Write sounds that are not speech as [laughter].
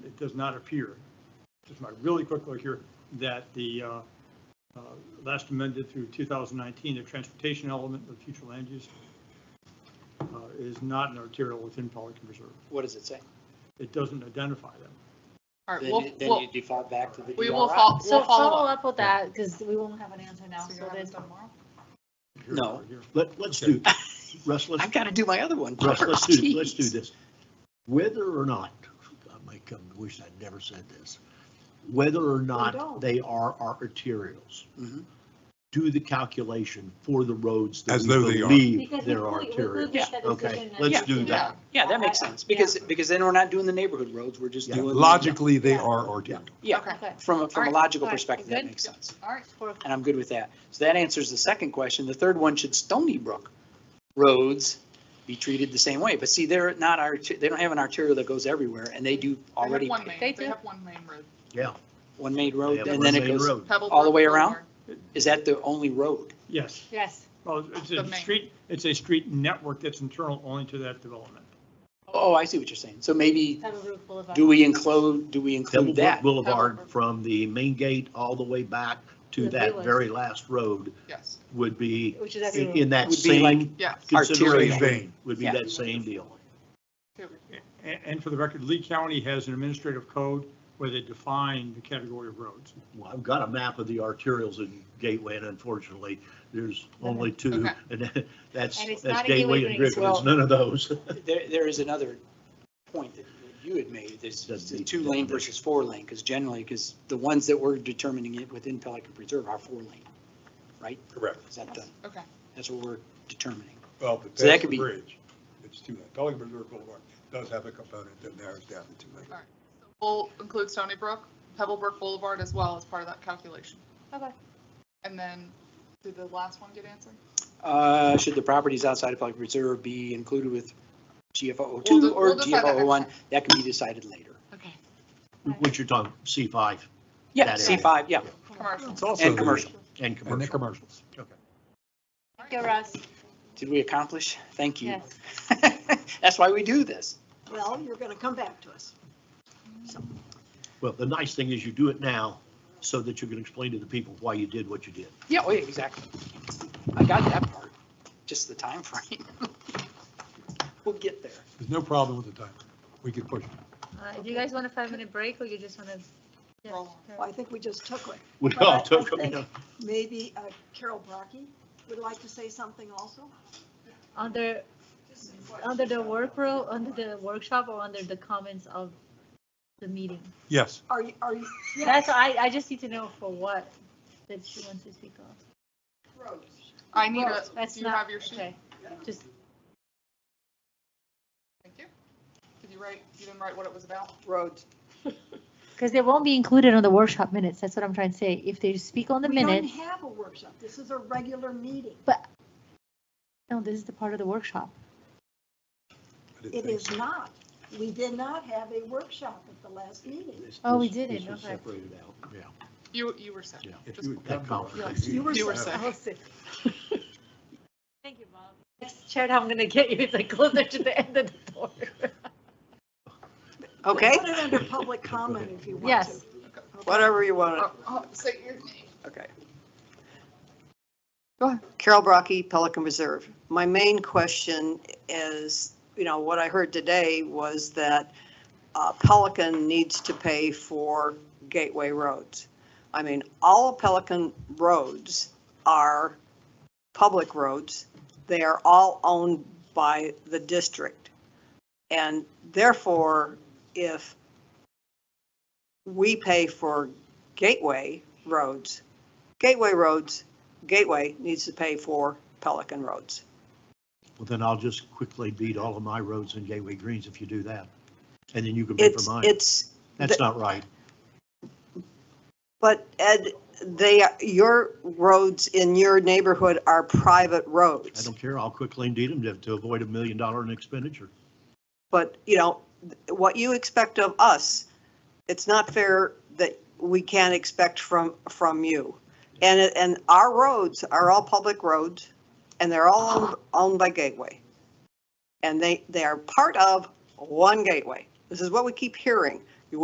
does not appear, just my really quick look here, that the uh, uh, last amended through 2019, the transportation element of future land use uh, is not an arterial within Pelican Reserve. What does it say? It doesn't identify them. All right, Then we'll, you- then we'll, you default back to the we will DRI. fol- So we'll follow follow up. up with that, because we won't have an answer now, So so you're then having tomorrow? Here, No. here, here. Let, [laughs] let's do, Russ, let's, I've got to do my other one. Russ, let's Jeez. [laughs] do, let's do this. Whether or not, I might come, to wish I'd never said this, whether or don't. not they are our arterials, Mhm. do the calculation for the roads that As we though they are. believe Because they're we- we- we looked arterials. at the Okay, decision let's and- do that. Yeah, that makes sense, because, because then we're not doing the neighborhood roads, we're just Yeah. doing. the- Logically, they are arterial. Yeah, Okay. Okay. from, a- from a Alright, logical alright, perspective, that good. makes sense. All right, For- And I'm good with that. So that answers the second question. The third one, should Stony Brook roads be treated the same way? But see, they're not, arter- they don't have an arterial that goes everywhere, and they do they have already, one They main, they do. have one main road. Yeah. one main they road, have and one then it main goes, road. Pebble All the Brook way around? Boulevard. is that the only road? Yes, Yes, well, it's The a main. street, it's a street network that's internal only to that development. Oh, I see what you're saying. So maybe, Pebble Brook Boulevard. do we include, do we Pebble include Brook that? Boulevard Pebble Brook. from the main gate all the way back to The that village. very last road Yes, would be Which is in, everywhere. in that Would be like- same yes. consideration. Vein. Would be Yeah. that same deal. And, and for the record, Lee County has an administrative code where they define the category of roads. Well, I've got a map of the arterials in Gateway, and unfortunately, there's only two, Okay. and that's, And it's that's not a Gateway Gateway and Greens. Griffin, it's Well- none of those. There, there is another point that you had made, this, Doesn't the need two lane definition. versus four lane, because generally, because the ones that we're determining it within Pelican Preserve are four lane, right? Correct. Is that the, Okay. that's what we're determining. Well, but So that past could the be- bridge, it's two lane. Pelican Reserve Boulevard does have a component that narrows down to two lane. We'll include Stony Brook, Pebble Brook Boulevard as well as part of that calculation. Okay. And then, did the last one get answered? Uh, should the properties outside of Pelican Preserve be included with GFO We'll two de- we'll or decide that next GFO one? time. That can be decided later. Okay. What you're talking, C five Yeah, That is- C five, yeah, Commercial. It's also and the- commercial. and And the commercial. commercials. Okay. Thank you, Russ. Did we accomplish? Thank you. Yes. [laughs] That's why we do this. Well, you're gonna come back to us. Well, the nice thing is you do it now so that you can explain to the people why you did what you did. [laughs] Yeah, oh, yeah, exactly. I got that part, just the time frame. [laughs] We'll get there. There's no problem with the time. We could push it. Uh, Do you guys want a five-minute break, or you just want Roll to? on. Well, I think we just took one. We Well, I- all Oh, took I them, think- yeah. Maybe uh, Carol Brockie would like to say something also? Under, under the work ro, under the workshop, or under the comments of the meeting? Yes. Are you, are you? That's, I, I just need to know for what that she wants to speak on. Rose. I need a, That's do you not- have your sheet? okay. Just, Thank you. Did you write, you didn't write what it was about? Rhodes. because they won't be included on the workshop minutes, that's what I'm trying to say. If they speak on the We don't minutes, have a workshop. This is a regular meeting. no, this is the part of the workshop. I didn't It think is so. not. We did not have a workshop at the last meeting. [laughs] This- Oh, we this- did it, this was okay. Separated out, yeah, You, you were sick. yeah. If you would That come conference. back. Yes, you were You were have- sick. Thank you, Bob. Next chat I'm gonna get you is like closer to the end of the door. Oh, Okay. Put it under public comment if you want to. Yes. Whatever you want. Oh, oh, Say your name. Okay. Carol Brockie, Pelican Reserve. My main question is, you know, what I heard today was that uh, Pelican needs to pay for gateway roads. I mean, all Pelican roads are public roads. They are all owned by the district. And therefore, if we pay for gateway roads, Gateway Roads, Gateway needs to pay for Pelican Roads. Well, then I'll just quickly beat all of my roads in Gateway Greens if you do that. And then you can pay for It's, mine. it's, That's not right. but Ed, they, are- your roads in your neighborhood are private I roads. don't care. I'll quickly deed them to, to avoid a million dollar in expenditure. But, you know, what you expect of us, it's not fair that we can't expect from, from you. And, it- and our roads are all public roads and they're all owned- owned by Gateway. And they, they are part of one Gateway. This is what we keep hearing.